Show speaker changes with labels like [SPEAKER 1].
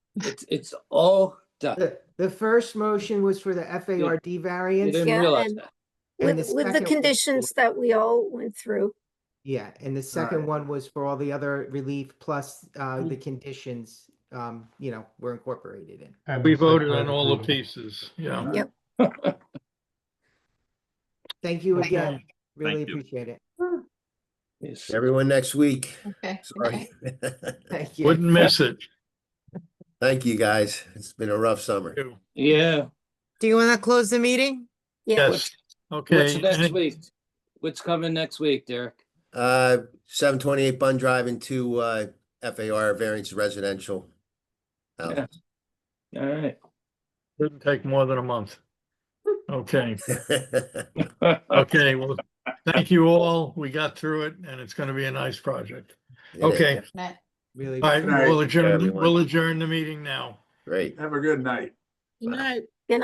[SPEAKER 1] It's, it's all done.
[SPEAKER 2] The, the first motion was for the FARD
[SPEAKER 1] You
[SPEAKER 2] variance.
[SPEAKER 1] didn't
[SPEAKER 3] Yeah,
[SPEAKER 1] realize
[SPEAKER 3] and-
[SPEAKER 1] that.
[SPEAKER 2] And
[SPEAKER 3] With,
[SPEAKER 2] the
[SPEAKER 3] with the
[SPEAKER 2] second one-
[SPEAKER 3] conditions that we all went through.
[SPEAKER 2] Yeah, and the second one was for all the other relief plus, uh, the conditions, um, you know, were incorporated in.
[SPEAKER 4] And
[SPEAKER 5] We
[SPEAKER 4] the site
[SPEAKER 5] voted
[SPEAKER 4] plan
[SPEAKER 5] on all the
[SPEAKER 4] approval.
[SPEAKER 5] pieces, yeah.
[SPEAKER 3] Yep.
[SPEAKER 2] Thank you
[SPEAKER 4] Okay.
[SPEAKER 2] again. Really
[SPEAKER 5] Thank you.
[SPEAKER 2] appreciate it.
[SPEAKER 1] Yes.
[SPEAKER 6] Everyone next week.
[SPEAKER 7] Okay.
[SPEAKER 6] Sorry.
[SPEAKER 2] Thank you.
[SPEAKER 5] Wouldn't miss it.
[SPEAKER 6] Thank you, guys. It's been a rough summer.
[SPEAKER 1] Yeah,
[SPEAKER 8] Do you want to close the meeting?
[SPEAKER 3] Yeah,
[SPEAKER 5] Yes,
[SPEAKER 1] what's
[SPEAKER 5] okay.
[SPEAKER 1] next
[SPEAKER 5] any-
[SPEAKER 1] week? What's coming next week, Derek?
[SPEAKER 6] Uh, seven twenty-eight Bun Drive into, uh, FAR variance residential. Oh. house.
[SPEAKER 1] Yeah. All right.
[SPEAKER 5] Didn't take more than a month. Okay, okay, well, thank you all. We got through it and it's gonna be a nice project.
[SPEAKER 6] It is.
[SPEAKER 5] Okay,
[SPEAKER 7] Matt,
[SPEAKER 2] Really.
[SPEAKER 5] all right, we'll adjourn,
[SPEAKER 6] everyone.
[SPEAKER 5] we'll adjourn the meeting now.
[SPEAKER 6] Great.
[SPEAKER 9] Have a good night.
[SPEAKER 3] Good night.